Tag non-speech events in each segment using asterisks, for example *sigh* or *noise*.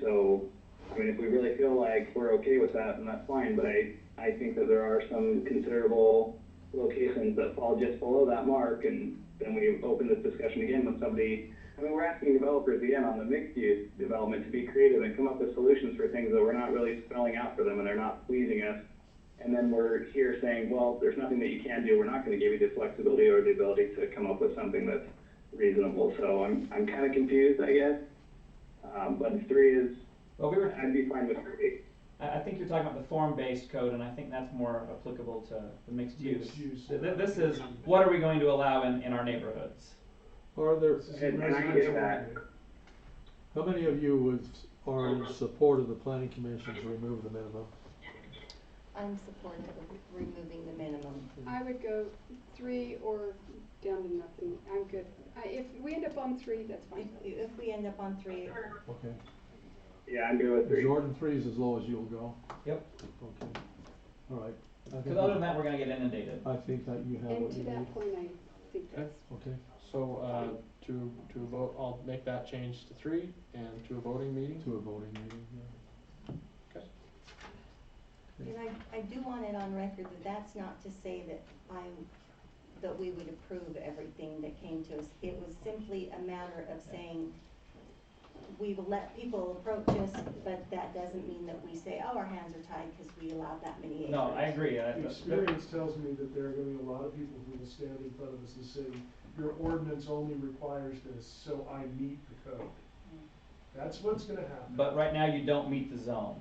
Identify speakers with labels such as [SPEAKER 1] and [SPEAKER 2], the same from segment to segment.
[SPEAKER 1] So, I mean, if we really feel like we're okay with that, then that's fine, but I, I think that there are some considerable locations that fall just below that mark, and then we open this discussion again with somebody, I mean, we're asking developers again on the mixed-use development to be creative and come up with solutions for things that we're not really spelling out for them and they're not pleasing us. And then we're here saying, well, there's nothing that you can do, we're not gonna give you the flexibility or the ability to come up with something that's reasonable, so I'm, I'm kinda confused, I guess. Um, but three is,
[SPEAKER 2] Well, we were,
[SPEAKER 1] I'd be fine with three.
[SPEAKER 2] I, I think you're talking about the form-based code, and I think that's more applicable to the mixed use.
[SPEAKER 3] Mixed use.
[SPEAKER 2] Th- th- This is, what are we going to allow in, in our neighborhoods?
[SPEAKER 3] Are there,
[SPEAKER 1] And, and I get that.
[SPEAKER 3] how many of you would, are in support of the planning commission to remove the minimum?
[SPEAKER 4] I'm supportive of removing the minimum.
[SPEAKER 5] I would go three or down to nothing. I'm good. I, if we end up on three, that's
[SPEAKER 4] If,
[SPEAKER 5] fine.
[SPEAKER 4] if we end up on three,
[SPEAKER 3] Okay.
[SPEAKER 1] Yeah, I'm good with three.
[SPEAKER 3] Jordan, three is as low as you'll go?
[SPEAKER 2] Yep.
[SPEAKER 3] Okay, all right. I think
[SPEAKER 2] Because other
[SPEAKER 3] you-
[SPEAKER 2] than that, we're gonna get inundated.
[SPEAKER 3] I think that you have
[SPEAKER 5] And
[SPEAKER 3] what
[SPEAKER 5] to
[SPEAKER 3] you need,
[SPEAKER 5] that point, I think that's,
[SPEAKER 3] okay?
[SPEAKER 6] So, uh, to, to a vote, I'll make that change to three and to a voting meeting.
[SPEAKER 3] To a voting meeting, yeah.
[SPEAKER 4] and I, I do want it on record that that's not to say that I, that we would approve everything that came to us. It was simply a matter of saying, we will let people approach us, but that doesn't mean that we say, oh, our hands are tied because we allowed that many acres.
[SPEAKER 2] No, I agree, I,
[SPEAKER 7] The Experience tells me that there are gonna be a lot of people who will stand in front of us and say, your ordinance only requires this, so I meet the code. That's what's gonna happen.
[SPEAKER 2] but right now you don't meet the zone,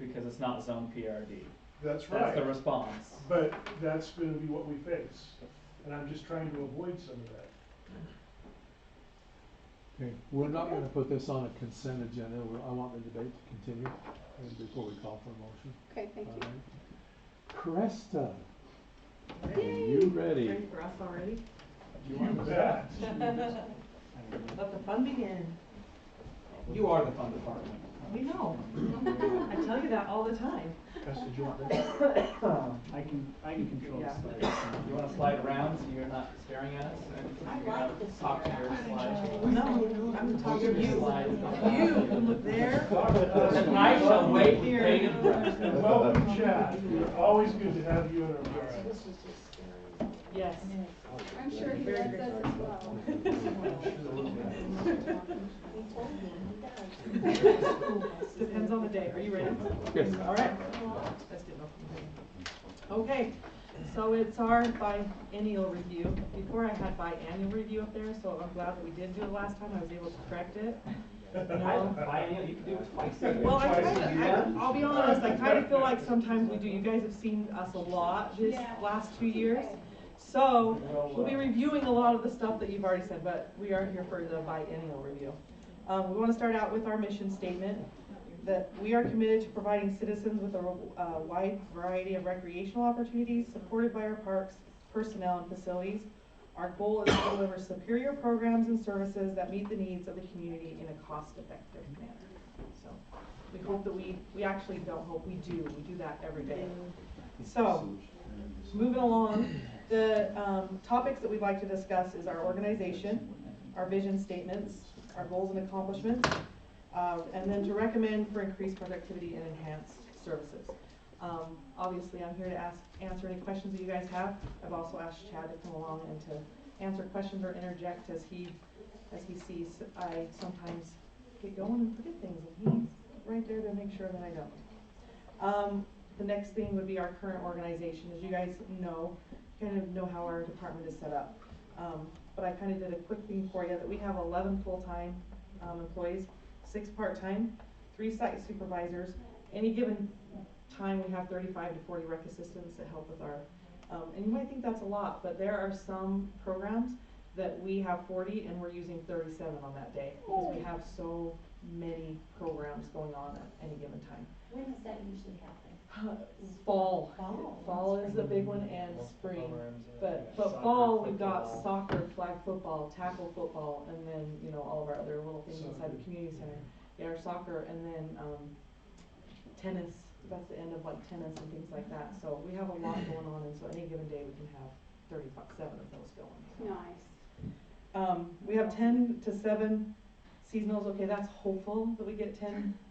[SPEAKER 2] because it's not zone PRD.
[SPEAKER 7] That's
[SPEAKER 2] That's the
[SPEAKER 7] right,
[SPEAKER 2] response.
[SPEAKER 7] but that's gonna be what we face, and I'm just trying to avoid some of that.
[SPEAKER 3] Okay, we're not gonna put this on a consent agenda, we're, I want the debate to continue, and before we call for a motion.
[SPEAKER 5] okay, thank
[SPEAKER 3] all
[SPEAKER 5] you.
[SPEAKER 3] right? Cresta, are you ready?
[SPEAKER 8] Ready for us already?
[SPEAKER 2] Do you want to-
[SPEAKER 7] That,
[SPEAKER 8] Let the fun begin.
[SPEAKER 2] You are the fun department.
[SPEAKER 8] We know. I tell you that all the time.
[SPEAKER 9] *coughs* I can, I can control
[SPEAKER 8] Yeah.
[SPEAKER 9] the slides.
[SPEAKER 2] You wanna slide around so you're not staring at us?
[SPEAKER 4] I
[SPEAKER 2] You're
[SPEAKER 4] like
[SPEAKER 2] not
[SPEAKER 4] this
[SPEAKER 2] Talking to your
[SPEAKER 4] area.
[SPEAKER 2] slides.
[SPEAKER 8] No, I'm talking to you. You can look there.
[SPEAKER 4] *laughs*
[SPEAKER 2] And I shall wait with
[SPEAKER 8] Here.
[SPEAKER 2] bated breath.
[SPEAKER 7] and uh, welcome Chad, We're always good to have you in our presence.
[SPEAKER 8] Yes.
[SPEAKER 5] I'm sure he
[SPEAKER 8] Very
[SPEAKER 5] loves us
[SPEAKER 8] good.
[SPEAKER 5] as well.
[SPEAKER 2] *laughs*
[SPEAKER 4] We told him, he does.
[SPEAKER 8] Depends on the day. Are you ready?
[SPEAKER 3] Yes.
[SPEAKER 8] All right. Let's get off. Okay, so it's our biennial review. Before I had biannual review up there, so I'm glad that we did do it last time. I was able to correct it. No.
[SPEAKER 2] Biennial, you can do it twice.
[SPEAKER 8] Well, I
[SPEAKER 7] Twice
[SPEAKER 8] kind
[SPEAKER 7] a
[SPEAKER 8] of,
[SPEAKER 7] year.
[SPEAKER 8] I, I'll be honest, I kind of feel like sometimes we do, you guys have seen us a lot this
[SPEAKER 5] Yeah.
[SPEAKER 8] last two years.
[SPEAKER 5] Okay.
[SPEAKER 8] So,
[SPEAKER 7] Well,
[SPEAKER 8] we'll be
[SPEAKER 7] uh,
[SPEAKER 8] reviewing a lot of the stuff that you've already said, but we are here for the biennial review. Um, we wanna start out with our mission statement, that we are committed to providing citizens with a, uh, wide variety of recreational opportunities supported by our parks, personnel, and facilities. Our goal is to deliver superior programs and services that meet the needs of the community in a cost-effective manner. So, we hope that we, we actually don't hope, we do, we do that every day. So, moving along, the, um, topics that we'd like to discuss is our organization, our vision statements, our goals and accomplishments, uh, and then to recommend for increased productivity and enhanced services. Um, obviously, I'm here to ask, answer any questions that you guys have. I've also asked Chad to come along and to answer questions or interject as he, as he sees. I sometimes get going and forget things, and he's right there to make sure that I don't. Um, the next thing would be our current organization, as you guys know, kind of know how our department is set up. Um, but I kind of did a quick thing for you, that we have eleven full-time, um, employees, six part-time, three site supervisors. Any given time, we have thirty-five to forty rec assistants that help with our, um, and you might think that's a lot, but there are some programs that we have forty and we're using thirty-seven on that day, because we have so many programs going on at any given time.
[SPEAKER 4] When does that usually happen?
[SPEAKER 8] Fall.
[SPEAKER 4] Fall.
[SPEAKER 8] Fall is the big one and spring. But, but fall, we've got soccer, flag football, tackle football, and then, you know, all of our other little things inside the community center. Yeah, our soccer and then, um, tennis, that's the end of like tennis and things like that. So we have a lot going on and so any given day we can have thirty-seven of those going.
[SPEAKER 5] Nice.
[SPEAKER 8] Um, we have ten to seven Seasonals, okay, that's hopeful that we get ten